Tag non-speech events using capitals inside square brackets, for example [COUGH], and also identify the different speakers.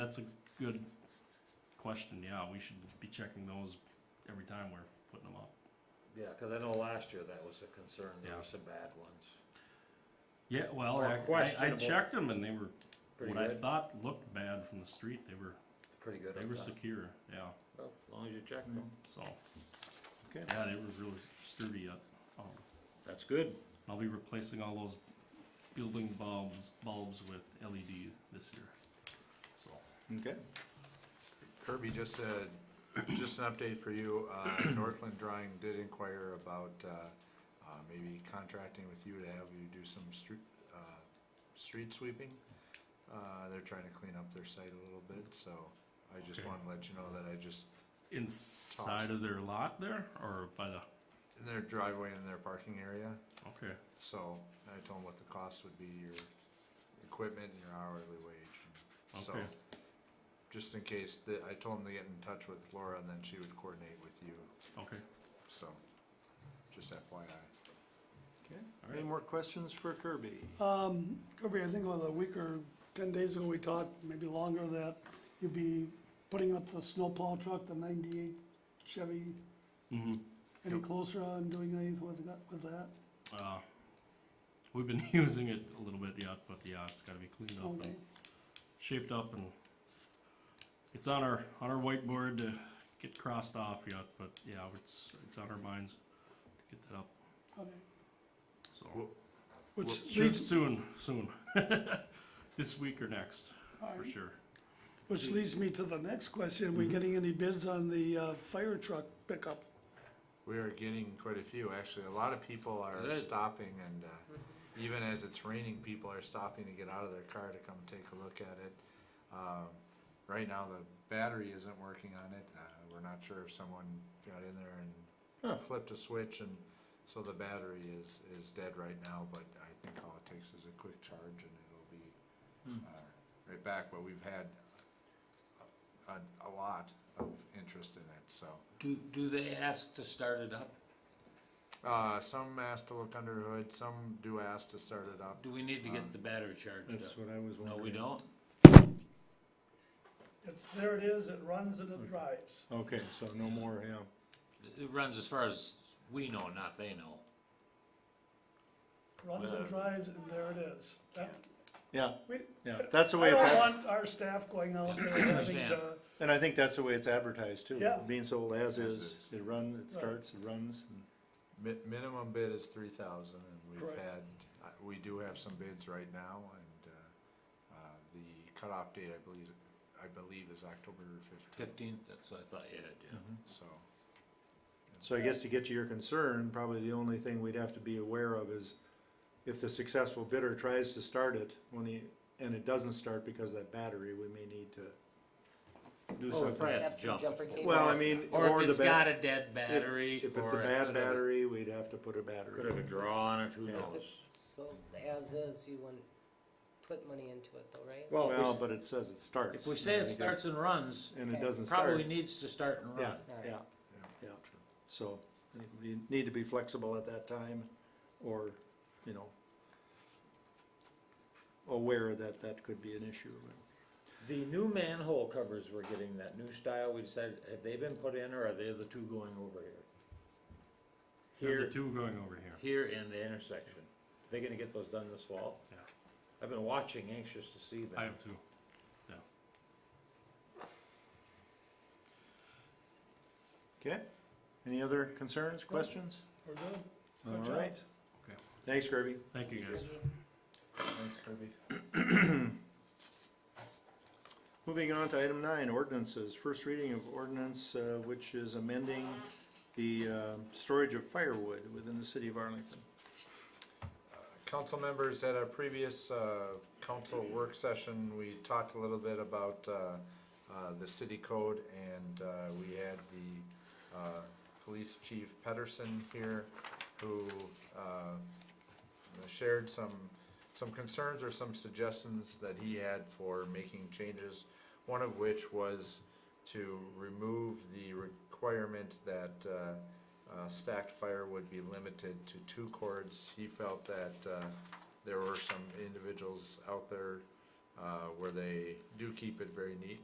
Speaker 1: that's a good question, yeah, we should be checking those every time we're putting them up.
Speaker 2: Yeah, cause I know last year that was a concern, there
Speaker 1: Yeah.
Speaker 2: were some bad ones.
Speaker 1: Yeah, well,
Speaker 2: Or
Speaker 1: I- I, I
Speaker 2: questionable.
Speaker 1: checked them and they were,
Speaker 2: Pretty
Speaker 1: what I
Speaker 2: good,
Speaker 1: thought looked bad from the street, they were,
Speaker 2: pretty good.
Speaker 1: they
Speaker 2: up
Speaker 1: were
Speaker 2: top.
Speaker 1: secure, yeah,
Speaker 2: Well, As long as you check them,
Speaker 1: so.
Speaker 3: Okay.
Speaker 1: Yeah, they were really sturdy, uh, um,
Speaker 3: That's good.
Speaker 1: I'll be replacing all those building bulbs, bulbs with LED this year, so.
Speaker 3: Okay.
Speaker 4: Kirby, just a, just an update for you, uh, [CLEARS THROAT] Northland Drawing did inquire about, uh, uh, maybe contracting with you to have you do some street, uh, street sweeping. Uh, they're trying to clean up their site a little bit, so I just
Speaker 1: Okay.
Speaker 4: wanted to let you know that I just,
Speaker 1: Inside of their lot there, or by the,
Speaker 4: in their driveway and their parking area,
Speaker 1: okay,
Speaker 4: so I told them what the cost would be, your equipment and your hourly wage. and So,
Speaker 1: Okay.
Speaker 4: just in case, that, I told them to get in touch with Laura and then she would coordinate with you,
Speaker 1: okay,
Speaker 4: so, just FYI.
Speaker 1: alright.
Speaker 3: Any more questions for Kirby?
Speaker 5: Um, Kirby, I think about a week or ten days ago, we talked, maybe longer, that you'd be putting up the snowplow truck, the ninety-eight Chevy,
Speaker 1: Mm-hmm.
Speaker 5: any closer on doing anything with that, with that?
Speaker 1: Uh, we've been [LAUGHS] using it a little bit yet, but yeah, it's got to be cleaned up
Speaker 5: Okay,
Speaker 1: and shaped up, and it's on our on our whiteboard to get crossed off yet. But yeah, it's it's on our minds to get that up.
Speaker 5: okay.
Speaker 1: So
Speaker 4: Well, well,
Speaker 5: Which
Speaker 1: Should-
Speaker 5: leads,
Speaker 1: soon, soon, [LAUGHS] this week or next
Speaker 5: all
Speaker 1: for
Speaker 5: right.
Speaker 1: sure.
Speaker 5: which leads me to the next question,
Speaker 3: Mm-hmm.
Speaker 5: we getting any bids on the, uh, fire truck pickup?
Speaker 4: We are getting quite a few, actually. A lot of people are
Speaker 2: Good.
Speaker 4: stopping and, uh, even as it's raining, people are stopping to get out of their car to come take a look at it. Um, right now, the battery isn't working on it. Uh, we're not sure if someone got in there
Speaker 3: Huh.
Speaker 4: and flipped a switch and so the battery is, is dead right now, but I think all it takes is a quick charge and it'll be,
Speaker 3: Hmm.
Speaker 4: uh, right back. But we've had a, a lot of interest in it, so.
Speaker 2: do, do they ask to start it up?
Speaker 4: Uh, some ask to look under the hood, some do ask to start it up.
Speaker 2: Do we need to
Speaker 4: Um,
Speaker 2: get the battery charged
Speaker 3: That's
Speaker 2: up?
Speaker 3: what I was
Speaker 2: No,
Speaker 3: wondering.
Speaker 2: we don't?
Speaker 5: It's, there it is, it runs and
Speaker 3: Mm.
Speaker 5: it drives.
Speaker 3: Okay, so no more, yeah.
Speaker 2: It- It runs as far as we know, not they know.
Speaker 5: Runs and
Speaker 2: Uh,
Speaker 5: drives and there it is. That-
Speaker 3: Yeah,
Speaker 5: we-
Speaker 3: yeah, that's the way
Speaker 5: I
Speaker 3: it's,
Speaker 5: don't
Speaker 3: ad-
Speaker 5: want our staff going out there and having
Speaker 2: Understand.
Speaker 5: to,
Speaker 3: and I think that's the way it's advertised too.
Speaker 5: Yeah.
Speaker 3: Being sold as
Speaker 4: As
Speaker 3: is,
Speaker 4: is.
Speaker 3: it runs, it starts, it runs. and-
Speaker 4: Mi- minimum bid is three thousand and we've
Speaker 5: Correct.
Speaker 4: had, uh, we do have some bids right now and, uh, uh, the cutoff date, I believe, I believe is October fifteenth,
Speaker 2: Fifteenth, that's what I thought you had, yeah.
Speaker 4: so.
Speaker 3: So I guess to get to your concern, probably the only thing we'd have to be aware of is if the successful bidder tries to start it, when he, and it doesn't start because of that battery, we may need to do
Speaker 2: Oh, we probably
Speaker 3: something.
Speaker 2: have
Speaker 6: Have
Speaker 2: to
Speaker 6: some
Speaker 2: jump.
Speaker 6: jumper
Speaker 2: it.
Speaker 6: cables.
Speaker 3: Well, I mean,
Speaker 2: Or
Speaker 3: or
Speaker 2: if
Speaker 3: the
Speaker 2: it's got
Speaker 3: bat,
Speaker 2: a dead battery.
Speaker 3: if it's a
Speaker 2: or it
Speaker 3: bad
Speaker 2: could have-
Speaker 3: battery, we'd have to put a
Speaker 2: Could
Speaker 3: battery.
Speaker 2: have a draw on it, who
Speaker 3: Yeah.
Speaker 2: knows?
Speaker 6: So as is, you wouldn't put money into it though, right?
Speaker 3: Well, but it says it starts.
Speaker 2: If we say
Speaker 3: I
Speaker 2: it
Speaker 3: think that's-
Speaker 2: starts and runs,
Speaker 3: And it
Speaker 6: Okay.
Speaker 3: doesn't start.
Speaker 2: probably needs to start and
Speaker 3: Yeah,
Speaker 2: run.
Speaker 6: All right.
Speaker 3: yeah,
Speaker 4: Yeah.
Speaker 3: yeah, so you need to be flexible at that time, or, you know, aware that that could be an issue.
Speaker 2: The new manhole covers we're getting, that new style, we decided, have they been put in or are they the two going over here?
Speaker 1: Here,
Speaker 2: Here,
Speaker 1: the two going over here.
Speaker 2: here and the intersection. They gonna get those done this fall?
Speaker 1: Yeah.
Speaker 2: I've been watching, anxious to see
Speaker 1: I
Speaker 2: them.
Speaker 1: have two.
Speaker 3: Okay, any other concerns, questions?
Speaker 5: we're good.
Speaker 3: All
Speaker 5: Good job.
Speaker 3: right.
Speaker 1: Okay.
Speaker 3: Thanks, Kirby.
Speaker 1: Thank you guys.
Speaker 4: Thanks, Kirby.
Speaker 3: Moving on to item nine, ordinances, first reading of ordinance, uh, which is amending the, uh, storage of firewood within the city of Arlington.
Speaker 4: Council members, at our previous uh, council work session, we talked a little bit about uh, uh, the city code, and uh, we had the uh, police chief Pedersen here, who uh, shared some, some concerns or some suggestions that he had for making changes, one of which was to remove the requirement that uh, uh, stacked firewood be limited to two cords. He felt that uh, there were some individuals out there uh, where they do keep it very neat